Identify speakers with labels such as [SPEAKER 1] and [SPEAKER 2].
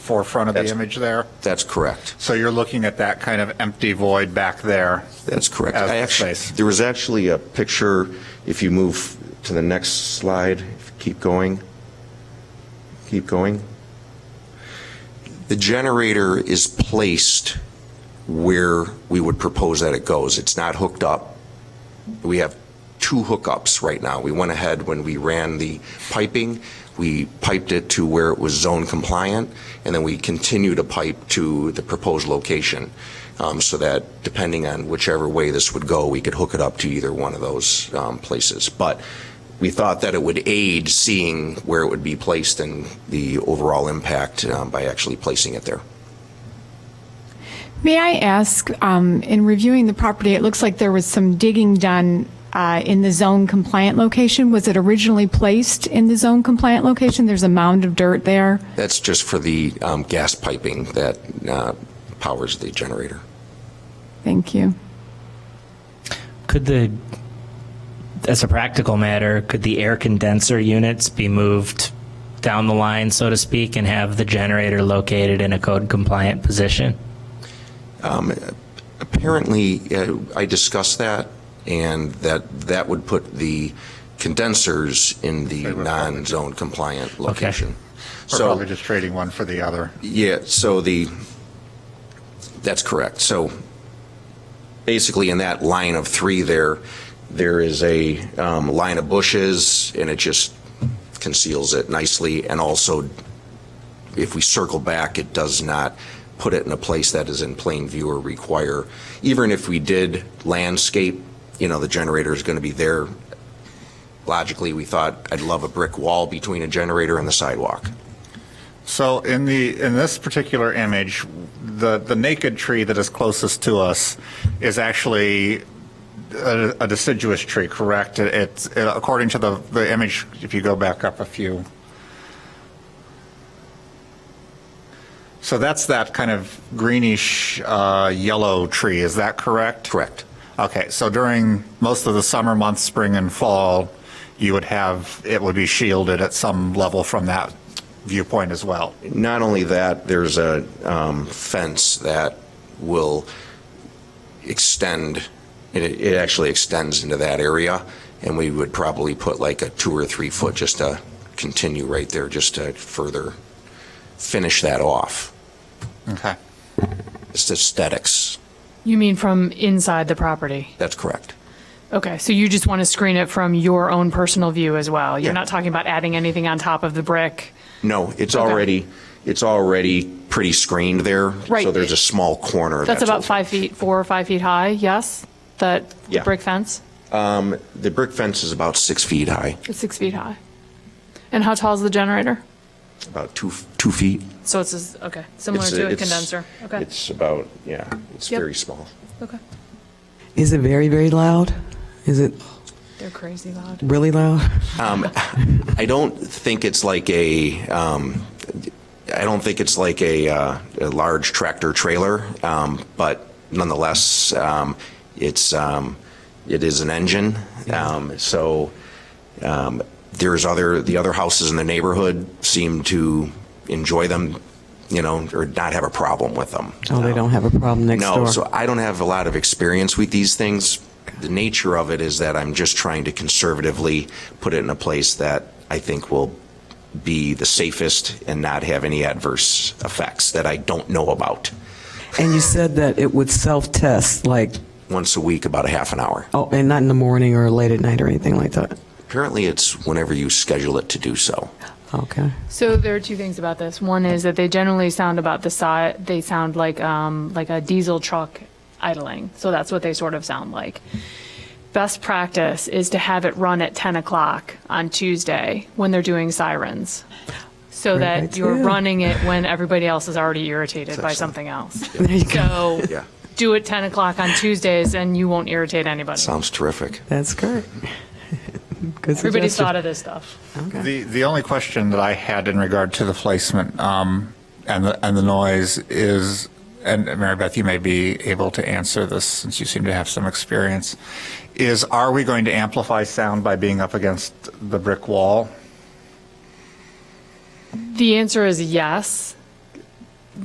[SPEAKER 1] forefront of the
[SPEAKER 2] That's-
[SPEAKER 1] image there.
[SPEAKER 2] That's correct.
[SPEAKER 1] So you're looking at that kind of empty void back there.
[SPEAKER 2] That's correct.
[SPEAKER 1] As
[SPEAKER 2] I
[SPEAKER 1] the
[SPEAKER 2] actually,
[SPEAKER 1] space.
[SPEAKER 2] there was actually a picture, if you move to the next slide, keep going, keep going. The generator is placed where we would propose that it goes. It's not hooked up. We have two hookups right now. We went ahead when we ran the piping, we piped it to where it was zone compliant, and then we continue to pipe to the proposed location, um, so that depending on whichever way this would go, we could hook it up to either one of those um, places. But we thought that it would aid seeing where it would be placed and the overall impact um, by actually placing it there.
[SPEAKER 3] May I ask, um, in reviewing the property, it looks like there was some digging done uh, in the zone compliant location. Was it originally placed in the zone compliant location? There's a mound of dirt there.
[SPEAKER 2] That's just for the um, gas piping that uh, powers the generator.
[SPEAKER 3] Thank you.
[SPEAKER 4] Could the, as a practical matter, could the air condenser units be moved down the line, so to speak, and have the generator located in a code compliant position?
[SPEAKER 2] Apparently, uh, I discussed that, and that that would put the condensers in the non-zone compliant location.
[SPEAKER 1] We're
[SPEAKER 2] So-
[SPEAKER 1] probably just trading one for the other.
[SPEAKER 2] Yeah, so the, that's correct. So basically, in that line of three there, there is a um, line of bushes, and it just conceals it nicely. And also, if we circle back, it does not put it in a place that is in plain view or require, even if we did landscape, you know, the generator is going to be there. Logically, we thought, I'd love a brick wall between a generator and the sidewalk.
[SPEAKER 1] So in the, in this particular image, the, the naked tree that is closest to us is actually a a deciduous tree, correct? It- It's, it- according to the, the image, if you go back up a few. So that's that kind of greenish uh, yellow tree, is that correct?
[SPEAKER 2] Correct.
[SPEAKER 1] Okay, so during most of the summer months, spring and fall, you would have, it would be shielded at some level from that viewpoint as well.
[SPEAKER 2] Not only that, there's a um, fence that will extend, it, it actually extends into that area, and we would probably put like a two or three foot just to continue right there, just to further finish that off.
[SPEAKER 1] Okay.
[SPEAKER 2] It's aesthetics,
[SPEAKER 5] You mean from inside the property?
[SPEAKER 2] that's correct.
[SPEAKER 5] Okay, so you just want to screen it from your own personal view as well?
[SPEAKER 2] Yeah.
[SPEAKER 5] You're not talking about adding anything on top of the brick?
[SPEAKER 2] No, it's already, it's already pretty screened there.
[SPEAKER 5] Right.
[SPEAKER 2] So there's a small corner.
[SPEAKER 5] That's about
[SPEAKER 2] open.
[SPEAKER 5] five feet, four or five feet high, yes? That
[SPEAKER 2] Yeah.
[SPEAKER 5] brick fence?
[SPEAKER 2] The brick fence is about six feet high,
[SPEAKER 5] It's six feet high. And how tall is the generator?
[SPEAKER 2] about two, two feet.
[SPEAKER 5] So it's, as- okay, similar
[SPEAKER 2] It's-
[SPEAKER 5] to a
[SPEAKER 2] it's-
[SPEAKER 5] condenser? Okay,
[SPEAKER 2] It's about, yeah, it's
[SPEAKER 5] Yep.
[SPEAKER 2] very small.
[SPEAKER 5] okay.
[SPEAKER 6] Is it very, very loud? Is it
[SPEAKER 5] They're crazy loud.
[SPEAKER 6] really loud?
[SPEAKER 2] I don't think it's like a, um, I don't think it's like a, uh, a large tractor trailer, um, but nonetheless, um, it's, um, it is an engine. Um, so, um, there's other, the other houses in the neighborhood seem to enjoy them, you know, or not have a problem with them. Um,
[SPEAKER 6] Oh, they don't have a problem next
[SPEAKER 2] No,
[SPEAKER 6] door.
[SPEAKER 2] so I don't have a lot of experience with these things. The nature of it is that I'm just trying to conservatively put it in a place that I think will be the safest and not have any adverse effects that I don't know about.
[SPEAKER 6] and you said that it would self-test, like,
[SPEAKER 2] Once a week, about a half an hour.
[SPEAKER 6] oh, and not in the morning or late at night or anything like that.
[SPEAKER 2] Apparently, it's whenever you schedule it to do so.
[SPEAKER 6] Okay.
[SPEAKER 5] So there are two things about this. One is that they generally sound about the size, they sound like, um, like a diesel truck idling. So that's what they sort of sound like. Best practice is to have it run at 10 o'clock on Tuesday when they're doing sirens. So
[SPEAKER 6] Great
[SPEAKER 5] that you're
[SPEAKER 6] idea.
[SPEAKER 5] running it when everybody else is already irritated by something else.
[SPEAKER 6] There you go.
[SPEAKER 5] So
[SPEAKER 2] Yeah.
[SPEAKER 5] do it 10 o'clock on Tuesdays and you won't irritate anybody.
[SPEAKER 2] Sounds terrific.
[SPEAKER 6] That's great. Good
[SPEAKER 5] Everybody's
[SPEAKER 6] suggestion.
[SPEAKER 5] thought of this stuff.
[SPEAKER 1] The, the only question that I had in regard to the placement um, and, the, and the noise is, and Mary Beth, you may be able to answer this since you seem to have some experience, is are we going to amplify sound by being up against the brick wall?
[SPEAKER 5] The answer is yes.